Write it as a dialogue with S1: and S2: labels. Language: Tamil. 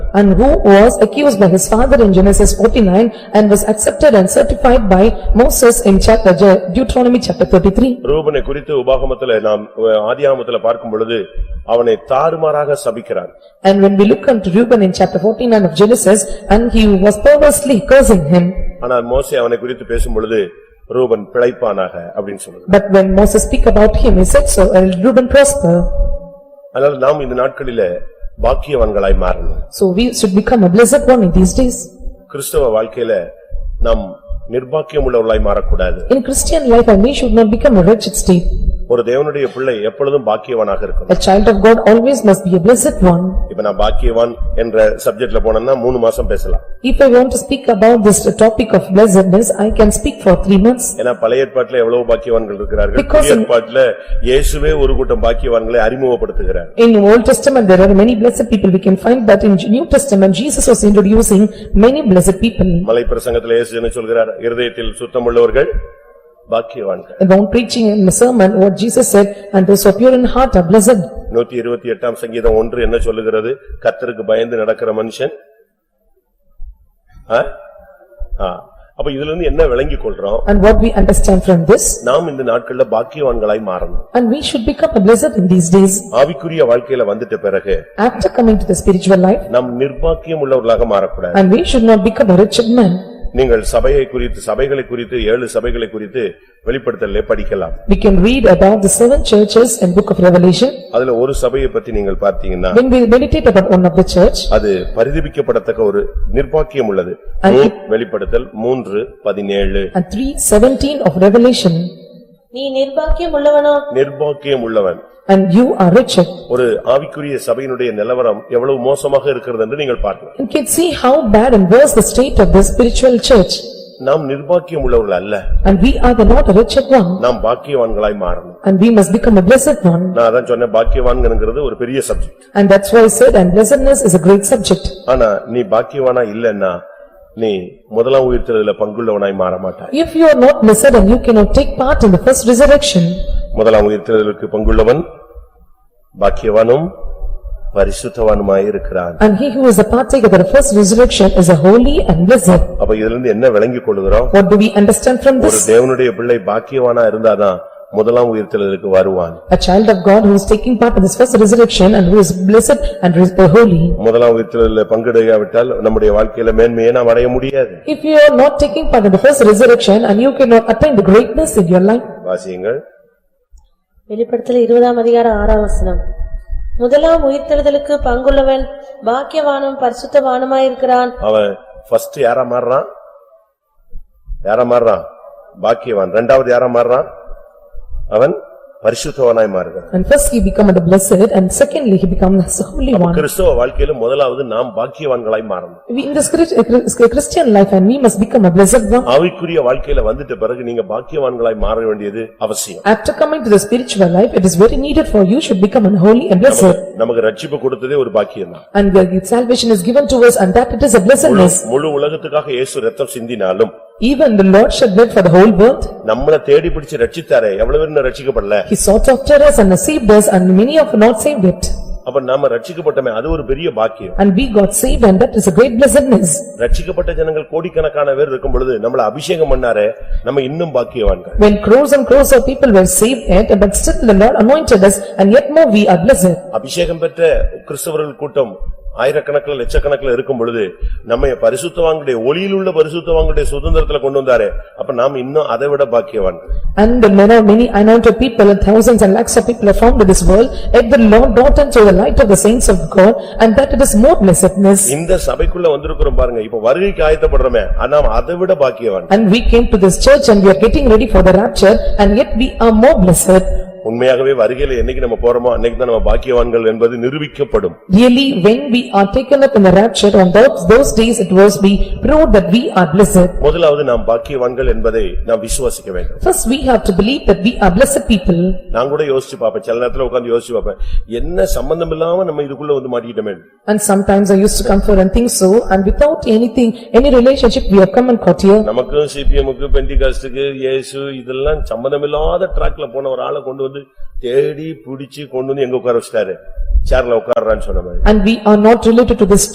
S1: and who was accused by his father in Genesis forty-nine and was accepted and certified by Moses in chapter Deuteronomy chapter thirty-three.
S2: ரூபனை குறித்து உபாகமத்துல நாம் அஹ், ஆதியாகமத்துல பார்க்கும் பொழுது அவனை தாறுமாறாக சபிக்கிறார்
S1: And when we look unto Reuben in chapter forty-nine of Genesis, and he was perversely cursing him.
S2: ஆனால் மோசே அவனை குறித்து பேசும் பொழுது ரூபன் பிழைப்பானாக அப்படின்னு சொல்லுது
S1: But when Moses speak about him, he said so, and Reuben prosper.
S2: அதனால நாம் இந்த நாட்களிலே பாக்கியவான்களாய் மாறணும்
S1: So we should become a blessed one in these days.
S2: கிறிஸ்தவ வாழ்க்கையில நாம் நிர்பாக்கியம் உள்ளவர்களாய் மாறக்கூடாது
S1: In Christian life, and we should not become a wretched state.
S2: ஒரு தேவனுடைய பிள்ளை எப்பொழுதும் பாக்கியவானாக இருக்கணும்
S1: A child of God always must be a blessed one.
S2: இப்ப நான் பாக்கியவான் என்ற சப்ஜெக்ட்ல போனேன்னா மூணு மாசம் பேசலாம்
S1: If I want to speak about this topic of blessedness, I can speak for three months.
S2: ஏன்னா பழைய ஏற்பாட்டுல எவ்வளவு பாக்கியவான்கள் இருக்கிறார்கள்
S1: Because
S2: புதிய
S1: in-
S2: ஏற்பாட்டுல இயேசுவே ஒரு கூட்டம் பாக்கியவான்களை அறிமுகப்படுத்துகிறார்
S1: In Old Testament, there are many blessed people. We can find that in New Testament, Jesus was introducing many blessed people.
S2: மலை பிரசங்கத்துல இயேசு என்ன சொல்கிறார் இருதயத்தில் சுத்தமுள்ளவர்கள் பாக்கியவான்கள்
S1: About preaching in the sermon, what Jesus said, "And those of pure in heart are blessed."
S2: நூத்தி இருபத்தி எட்டாம் சங்கீதம் ஒன்று என்ன சொல்லுகிறது கத்தருக்கு பயந்து நடக்கிற மனுஷன் ஆ? ஆ. அப்ப இதுல இருந்து என்ன விளங்கிக் கொள்றோம்
S1: And what we understand from this,
S2: நாம் இந்த நாட்கள்ல பாக்கியவான்களாய் மாறணும்
S1: and we should become a blessed in these days.
S2: ஆவிக்குரிய வாழ்க்கையில வந்துட்ட பிறகு
S1: After coming to the spiritual life,
S2: நாம் நிர்பாக்கியம் உள்ளவர்களாக மாறக்கூடாது
S1: and we should not become a wretched man.
S2: நீங்கள் சபையை குறித்து சபைகளை குறித்து ஏழு சபைகளை குறித்து வெளிப்படுத்தலே படிக்கலாம்
S1: We can read about the seven churches in book of Revelation.
S2: அதுல ஒரு சபையை பத்தி நீங்கள் பார்த்தீங்கன்னா
S1: When we meditate about one of the church,
S2: அது பரிதபிக்கப்படத்தக்க ஒரு நிர்பாக்கியம் உள்ளது
S1: அது-
S2: மூ- வெளிப்படுத்தல் மூன்று பதினேழு
S1: and three seventeen of Revelation,
S3: நீ நிர்பாக்கியம் உள்ளவனோ
S2: நிர்பாக்கியம் உள்ளவன்
S1: and you are wretched.
S2: ஒரு ஆவிக்குரிய சபையினுடைய நிலவரம் எவ்வளவு மோசமாக இருக்கிறது என்று நீங்கள் பார்க்கலாம்
S1: You can see how bad and worse the state of the spiritual church,
S2: நாம் நிர்பாக்கியம் உள்ளவர்கள் அல்ல
S1: and we are the not a wretched one,
S2: நாம் பாக்கியவான்களாய் மாறணும்
S1: and we must become a blessed one.
S2: நான் அதான் சொன்னேன் பாக்கியவான்கிறது ஒரு பெரிய subject
S1: And that's why I said, and blessedness is a great subject.
S2: ஆனா நீ பாக்கியவானா இல்லன்னா நீ முதலாம் உயிர்த்தெழுதல பங்குள்ளவனாய் மாற மாட்டாய்
S1: If you are not blessed and you cannot take part in the first resurrection,
S2: முதலாம் உயிர்த்தெழுதலுக்கு பங்குள்ளவன் பாக்கியவானும் பரிசுத்தவானுமாய் இருக்கிறான்
S1: and he who is a partaker of the first resurrection is a holy and blessed.
S2: அப்ப இதுல இருந்து என்ன விளங்கிக் கொள்கிறோம்
S1: What do we understand from
S2: ஒரு
S1: this?
S2: தேவனுடைய பிள்ளை பாக்கியவானா இருந்தாதான் முதலாம் உயிர்த்தெழுதலுக்கு வருவான்
S1: A child of God who is taking part in this first resurrection and who is blessed and is holy.
S2: முதலாம் உயிர்த்தெழுதல பங்கெடுக்காவிட்டால் நம்முடைய வாழ்க்கையில மேன்மையை நாம் அடைய முடியாது
S1: If you are not taking part in the first resurrection and you cannot attain the greatness in your life,
S2: வாசியங்கள்
S3: வெளிப்படுத்தல் இருபதாம் அதிகாரம் ஆறாம் வசனம் முதலாம் உயிர்த்தெழுதலுக்கு பங்குள்ளவன் பாக்கியவானும் பரிசுத்தவானுமாயிருக்கிறான்
S2: அவன் ஃபர்ஸ்ட் யாரா மாறுறான் யாரா மாறுறான் பாக்கியவான் இரண்டாவது யாரா மாறுறான் அவன் பரிசுத்தவனாய் மாறுகிறான்
S1: and first he become the blessed and secondly he becomes the holy one.
S2: கிறிஸ்தவ வாழ்க்கையில முதலாவது நாம் பாக்கியவான்களாய் மாறணும்
S1: We in this Chris- uh, Chris- Christian life and we must become a blessed one.
S2: ஆவிக்குரிய வாழ்க்கையில வந்துட்ட பிறகு நீங்க பாக்கியவான்களாய் மாற வேண்டியது அவசியம்
S1: After coming to the spiritual life, it is very needed for you should become an holy and blessed.
S2: நமக்கு ரட்சிப்பு கொடுத்ததே ஒரு பாக்கியம்தான்
S1: And the salvation is given to us and that it is a blessedness.
S2: முழு உலகத்துக்காக இயேசு ரத்தம் சிந்தினாலும்
S1: Even the Lord shed blood for the whole world.
S2: நம்மள தேடி பிடிச்சு ரட்சித்தாரே எவ்வளவு பேர் இன்னும் ரட்சிக்கப்படல
S1: He sought after us and saved us and many have not saved it.
S2: அப்ப நாம ரட்சிக்கப்பட்டமே அது ஒரு பெரிய பாக்கியம்
S1: And we got saved and that is a great blessedness.
S2: ரட்சிக்கப்பட்ட ஜனங்கள் கோடிக்கணக்கான பேர் இருக்கும் பொழுது நம்மள அபிஷேகம் பண்ணாரே நம்ம இன்னும் பாக்கியவான்கள்
S1: When crores and crores of people were saved yet, but still the Lord anointed us and yet more we are blessed.
S2: அபிஷேகம் பெற்ற கிறிஸ்தவர்கள் கூட்டம் ஆயிரக்கணக்கில் லட்சக்கணக்கில் இருக்கும் பொழுது நம்ம பரிசுத்தவான்களுடைய ஒளியில் உள்ள பரிசுத்தவான்களுடைய சுதந்திரத்துல கொண்டு வந்தாரே அப்ப நாம் இன்னும் அதை விட பாக்கியவான்கள்
S1: And there are many anointed people and thousands and lakhs of people are found in this world, yet the Lord brought unto the light of the saints of God and that it is more blessedness.
S2: இந்த சபைக்குள்ள வந்திருக்கிறோம் பாருங்க இப்ப வருகைக்கு ஆயத்தப்படுறோமே ஆனா அதை விட பாக்கியவான்கள்
S1: And we came to this church and we are getting ready for the rapture and yet we are more blessed.
S2: உண்மையாகவே வருகையில என்னைக்கு நம்ம போறோமோ அன்னைக்கு தான் நம்ம பாக்கியவான்கள் என்பது நிரூபிக்கப்படும்
S1: Really, when we are taken up in the rapture on those those days, it was be proved that we are blessed.
S2: முதலாவது நாம் பாக்கியவான்கள் என்பதை நாம் விசுவாசிக்க வேண்டும்
S1: First, we have to believe that we are blessed people.
S2: நான் கூட யோசிச்சு பாப்பேன் சில நேரத்துல உட்கார்ந்து யோசிச்சு பாப்பேன் என்ன சம்பந்தம் இல்லாம நம்ம இதுக்குள்ள வந்து மாட்டிக்கிட்டோமே
S1: And sometimes I used to come for and think so, and without anything, any relationship, we have come and caught here.
S2: நமக்கும் சிபிஎம்க்கு பெண்டிகாஸ்டுக்கு இயேசு இதெல்லாம் சம்பந்தமில்லாத ட்ராக்ல போன ஒரு ஆளை கொண்டு வந்து தேடி பிடிச்சு கொண்டு வந்து எங்க உட்கார வச்சிட்டாரு சேர்ல உட்கார்றான்னு சொன்ன மாதிரி
S1: And we are not related to this